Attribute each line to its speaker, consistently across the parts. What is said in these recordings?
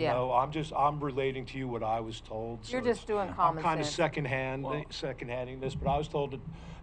Speaker 1: Yeah.
Speaker 2: No, I'm just, I'm relating to you what I was told. so
Speaker 1: You're just
Speaker 2: it's-
Speaker 1: doing
Speaker 2: I'm
Speaker 1: common
Speaker 2: kind of
Speaker 1: sense.
Speaker 2: secondhand,
Speaker 3: Well-
Speaker 2: secondhanding this, but I was told that,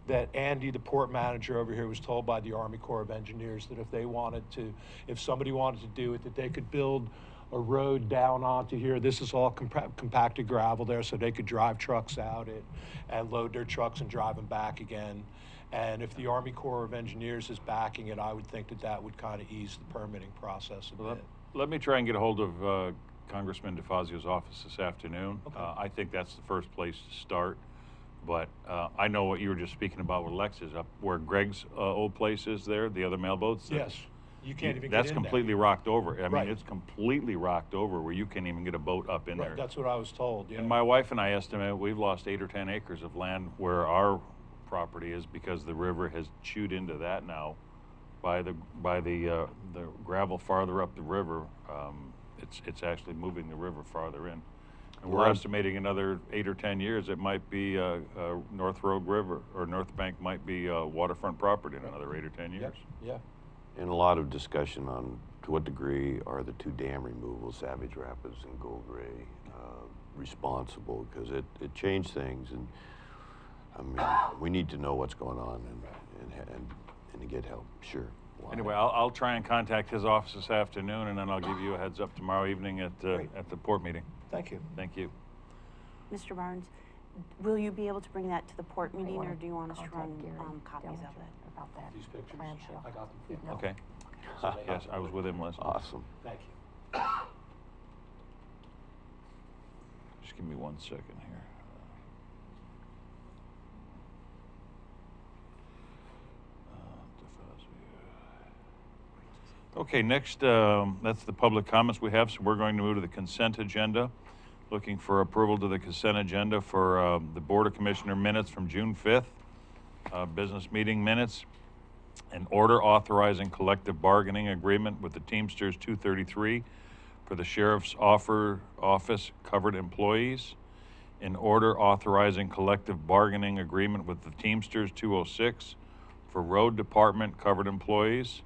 Speaker 2: that Andy, the port manager over here, was told by the Army Corps of Engineers that if they wanted to, if somebody wanted to do it, that they could build a road down onto here. This is all compa- compacted gravel there, so they could drive trucks out it and load their trucks and drive them back again. And if the Army Corps of Engineers is backing it, I would think that that would kind of ease the permitting process a
Speaker 3: Well,
Speaker 2: bit.
Speaker 3: Let let me try and get a hold of uh, Congressman DeFazio's office this afternoon.
Speaker 2: Okay.
Speaker 3: Uh, I think that's the first place to start. But uh, I know what you were just speaking about with Lexus, up where Greg's uh, old place is there, the other mailboats. that-
Speaker 2: Yes, you can't even get in
Speaker 3: That's
Speaker 2: there.
Speaker 3: completely rocked over. I
Speaker 2: Right.
Speaker 3: mean, it's completely rocked over where you can't even get a boat up in
Speaker 2: Right,
Speaker 3: there.
Speaker 2: That's what I was told, yeah.
Speaker 3: And my wife and I estimate we've lost eight or 10 acres of land where our property is because the river has chewed into that now by the, by the, uh, the gravel farther up the river. Um, it's, it's actually moving the river farther in. And we're
Speaker 4: Well-
Speaker 3: estimating another eight or 10 years, it might be, uh, uh, North Road River or North Bank might be, uh, waterfront property in another eight or 10
Speaker 2: Yep,
Speaker 3: years.
Speaker 2: Yeah,
Speaker 4: And a lot of discussion on to what degree are the two dam removals, Savage Rapids and Gold Ray, uh, responsible? Because it, it changed things, and I mean, we need to know what's going on and, and, and, and to get help, sure. why.
Speaker 3: Anyway, I'll, I'll try and contact his office this afternoon and then I'll give you a heads up tomorrow evening at, uh,
Speaker 2: Great.
Speaker 3: at the port meeting.
Speaker 2: thank you.
Speaker 3: Thank you.
Speaker 5: Mr. Barnes, will you be able to bring that to the port meeting, or do you want us to run um, copies of it?
Speaker 1: About that.
Speaker 2: These pictures,
Speaker 1: Clamshell.
Speaker 2: I got them.
Speaker 1: No.
Speaker 3: Okay.
Speaker 2: So they
Speaker 3: Yes,
Speaker 2: have-
Speaker 3: I was with him last night.
Speaker 4: Awesome.
Speaker 2: Thank you.
Speaker 3: Just give me one second here. Uh, Okay, next, um, that's the public comments we have, so we're going to move to the consent agenda. Looking for approval to the consent agenda for um, the Board of Commissioner minutes from June 5th, uh, business meeting minutes, an order authorizing collective bargaining agreement with the Teamsters 233 for the sheriff's offer, office covered employees. An order authorizing collective bargaining agreement with the Teamsters 206 for road department covered employees.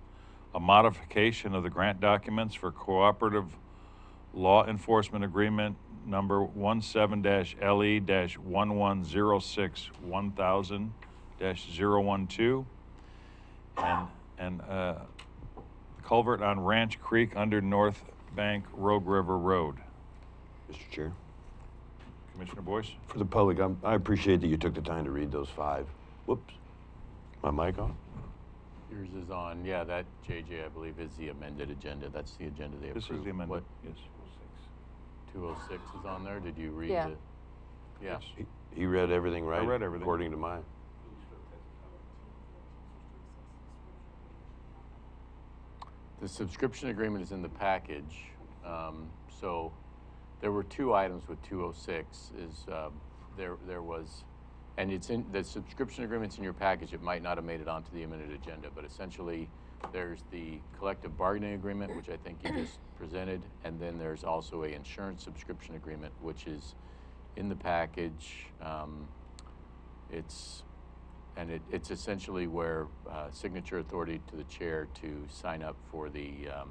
Speaker 3: A modification of the grant documents for cooperative law enforcement agreement number E 17-LE-1106-1000-012. And, and, uh, culvert on Ranch Creek under North Bank Rogue River Road.
Speaker 4: Mr. Chair.
Speaker 3: Commissioner Boyce?
Speaker 4: For the public, I'm, I appreciate that you took the time to read those five. Whoops. My mic on?
Speaker 6: Yours is on, yeah, that JJ, I believe, is the amended agenda. That's the agenda they
Speaker 3: This
Speaker 6: approved.
Speaker 3: is the amendment.
Speaker 6: What,
Speaker 3: Yes.
Speaker 6: 206 is on there? Did you read
Speaker 1: Yeah.
Speaker 6: the? Yeah.
Speaker 4: He, he read everything right?
Speaker 3: read everything.
Speaker 4: According to mine.
Speaker 6: The subscription agreement is in the package. Um, So there were two items with 206 is, um, there, there was, and it's in, the subscription agreement's in your package. It might not have made it onto the amended agenda, but essentially there's the collective bargaining agreement, which I think you just presented. And then there's also a insurance subscription agreement, which is in the package. Um, It's and it, it's essentially where uh, signature authority to the chair to sign up for the um,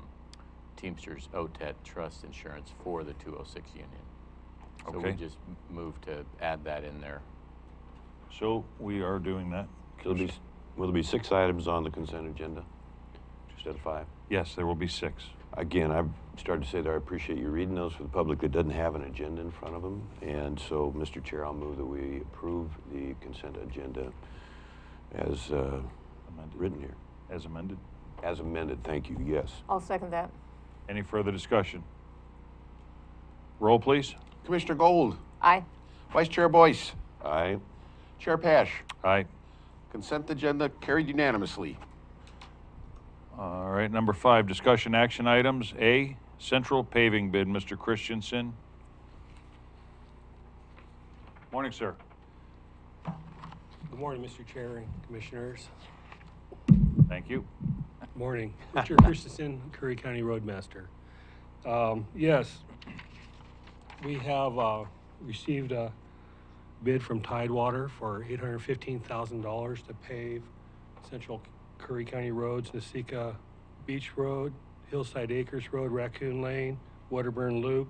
Speaker 6: Teamsters OTET trust insurance for the 206 union. So we
Speaker 3: Okay.
Speaker 6: just m- moved to add that in there.
Speaker 3: So we are doing that.
Speaker 4: There'll be, s- will there be six items on the consent agenda instead of five?
Speaker 3: Yes, there will be six.
Speaker 4: Again, I've started to say that I appreciate you reading those for the public that doesn't have an agenda in front of them. And so, Mr. Chair, I'll move that we approve the consent agenda as uh,
Speaker 3: amended-
Speaker 4: written here.
Speaker 3: As amended.
Speaker 4: As amended, thank you, yes.
Speaker 1: I'll second that.
Speaker 3: Any further discussion? Roll, please.
Speaker 7: Commissioner Gold,
Speaker 1: Aye.
Speaker 7: Vice Chair Boyce,
Speaker 4: Aye.
Speaker 7: Chair Pash,
Speaker 3: Aye.
Speaker 7: consent agenda carried unanimously.
Speaker 3: All right, number five, discussion action items. A, central paving bid, Mr. Christensen. Morning, sir.
Speaker 8: Good morning, Mr. Chair and Commissioners.
Speaker 3: Thank you.
Speaker 8: Morning. Richard Christensen, Curry County Roadmaster. Um, Yes, we have uh, received a bid from Tidewater for $815,000 to pave Central Curry County roads, Nasika Beach Road, Hillside Acres Road, Raccoon Lane, Wedderburn Loop,